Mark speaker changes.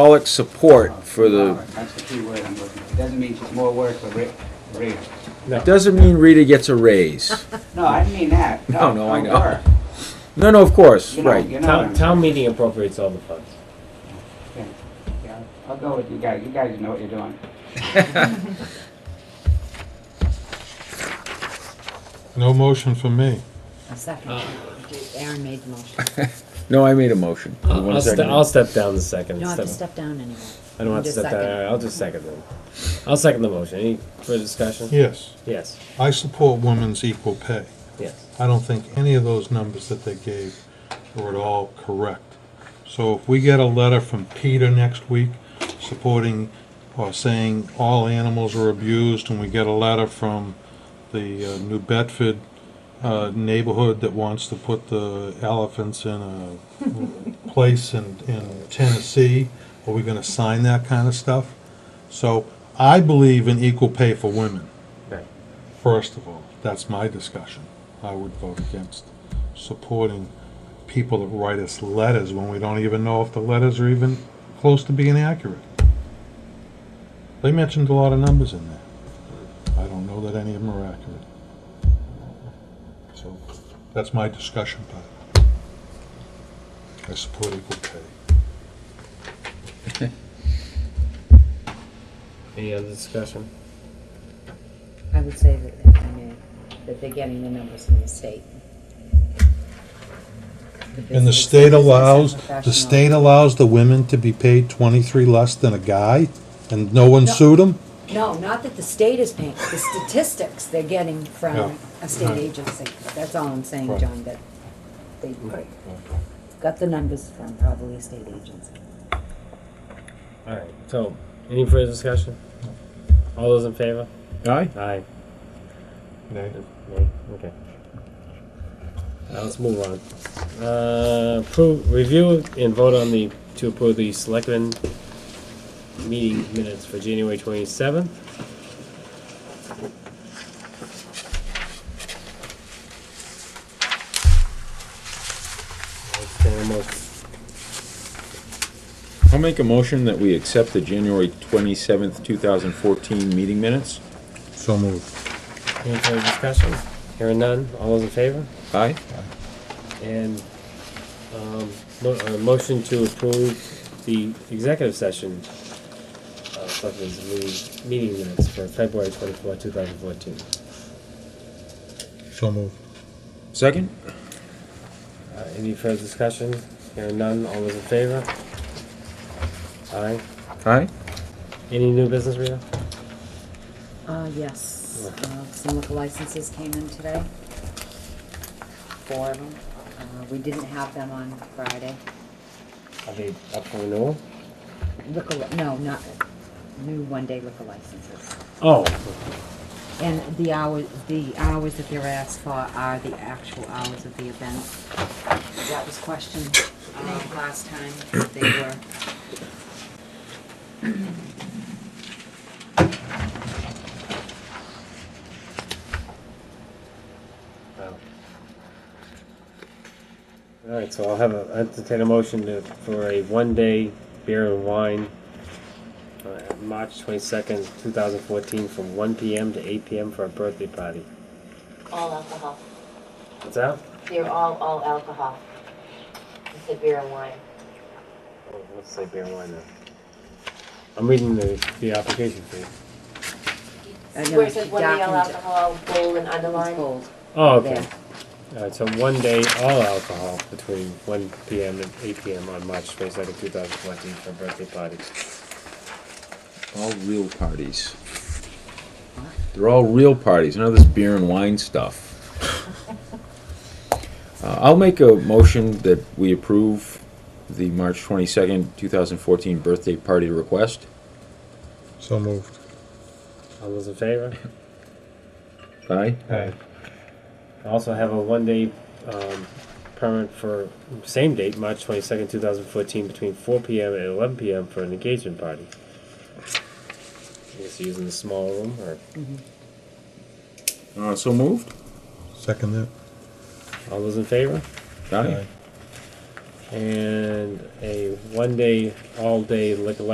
Speaker 1: solid support for the,
Speaker 2: That's the key word I'm looking for. Doesn't mean she's more work for Rita.
Speaker 1: it doesn't mean Rita gets a raise.
Speaker 2: No, I didn't mean that.
Speaker 1: No, no, I
Speaker 2: don't
Speaker 1: know.
Speaker 2: work.
Speaker 1: No, no, of course,
Speaker 2: You know,
Speaker 1: right.
Speaker 2: you know what
Speaker 3: Town,
Speaker 2: I'm-
Speaker 3: town meeting appropriates all the funds.
Speaker 2: Yeah, I'll go with you guys. You guys know what you're doing.
Speaker 4: No motion from me.
Speaker 5: A second. Aaron made the motion.
Speaker 1: No, I made a motion. You
Speaker 3: I'll,
Speaker 1: want
Speaker 3: I'll
Speaker 1: a
Speaker 3: ste-
Speaker 1: second?
Speaker 3: I'll step down the second.
Speaker 5: You don't have to
Speaker 3: Step-
Speaker 5: step down anymore.
Speaker 3: I don't have to
Speaker 5: Just
Speaker 3: step down,
Speaker 5: second.
Speaker 3: All right, I'll just second it. I'll second the motion. Any further discussion?
Speaker 4: Yes,
Speaker 3: Yes,
Speaker 4: I support women's equal pay.
Speaker 3: yes.
Speaker 4: I don't think any of those numbers that they gave were at all correct. So if we get a letter from Peter next week supporting or saying all animals are abused, and we get a letter from the uh, New Bedford uh, neighborhood that wants to put the elephants in a place in, in Tennessee, are we gonna sign that kind of stuff? So I believe in equal pay for women.
Speaker 3: Right.
Speaker 4: First of all, that's my discussion. I would vote against supporting people that write us letters when we don't even know if the letters are even close to being accurate. They mentioned a lot of numbers in there. I don't know that any of them are accurate. So that's my discussion part. I support equal pay.
Speaker 3: Any other discussion?
Speaker 5: I would say that, I mean, that they're getting the numbers from the state.
Speaker 4: And the
Speaker 5: business-
Speaker 4: state
Speaker 5: business
Speaker 4: allows, the
Speaker 5: professional-
Speaker 4: state allows the women to be paid twenty-three less than a guy, and no one
Speaker 5: No.
Speaker 4: sued them?
Speaker 5: No, not that the state is paying, the statistics they're getting
Speaker 4: Yeah.
Speaker 5: from a state agency. That's all I'm saying,
Speaker 4: Right.
Speaker 5: John, that they got the numbers from probably a state agency.
Speaker 3: All right. So, any further discussion? All those in favor?
Speaker 1: Aye?
Speaker 3: Aye.
Speaker 4: Nay.
Speaker 3: Nay? Okay. Now let's move on. Uh, approve, review and vote on the, to approve the selectmen meeting minutes for January twenty-seventh.
Speaker 1: I'll make a motion that we accept the January 27th, 2014 meeting minutes.
Speaker 4: So moved.
Speaker 3: Any further discussion? Hearing none, all those in favor?
Speaker 1: Aye?
Speaker 3: And, um, mo- uh, motion to approve the executive session, uh, selectmen's meeting, meeting minutes for February twenty-four, two thousand fourteen.
Speaker 4: So moved.
Speaker 1: Second?
Speaker 3: Uh, any further discussion? Hearing none, all those in favor? Aye.
Speaker 1: Aye?
Speaker 3: Any new business, Rita?
Speaker 5: Uh, yes, uh, some liquor licenses came in today. Four of them. Uh, we didn't have them on Friday.
Speaker 3: Are they up for renewal?
Speaker 5: Liquor, li- no, not, new one-day liquor licenses.
Speaker 3: Oh,
Speaker 5: And the hours, the hours that they're asked for are the actual hours of the event. That was questioned, um, last time, if they were.
Speaker 3: Wow. All right, so I'll have a, entertain a motion to, for a one-day beer and wine, uh, March twenty-second, two thousand fourteen, from one PM to eight PM for a birthday party.
Speaker 6: All alcohol.
Speaker 3: What's that?
Speaker 6: They're all, all alcohol. It's a beer and wine.
Speaker 3: Oh, Let's say beer and wine then. I'm reading the, the application fee.
Speaker 5: I know
Speaker 6: Where it
Speaker 5: she
Speaker 6: says one day all
Speaker 5: darkened it.
Speaker 6: alcohol, bold and
Speaker 5: It's
Speaker 6: underlined.
Speaker 5: gold.
Speaker 3: Oh, okay.
Speaker 5: There.
Speaker 3: All right, so one day, all alcohol between one PM and eight PM on March twenty-second, two thousand fourteen, for a birthday party.
Speaker 1: All real parties. They're all real parties, none of this beer and wine stuff. Uh, I'll make a motion that we approve the March 22nd, 2014 birthday party request.
Speaker 4: So moved.
Speaker 3: All those in favor?
Speaker 1: Aye?
Speaker 4: Aye.
Speaker 3: I also have a one-day um, permit for same date, March twenty-second, two thousand fourteen, between four PM and eleven PM for an engagement party. I guess using the small room, or
Speaker 1: Uh, So moved?
Speaker 4: Second that.
Speaker 3: all those in favor?
Speaker 1: Aye?
Speaker 3: and a one-day, all-day liquor license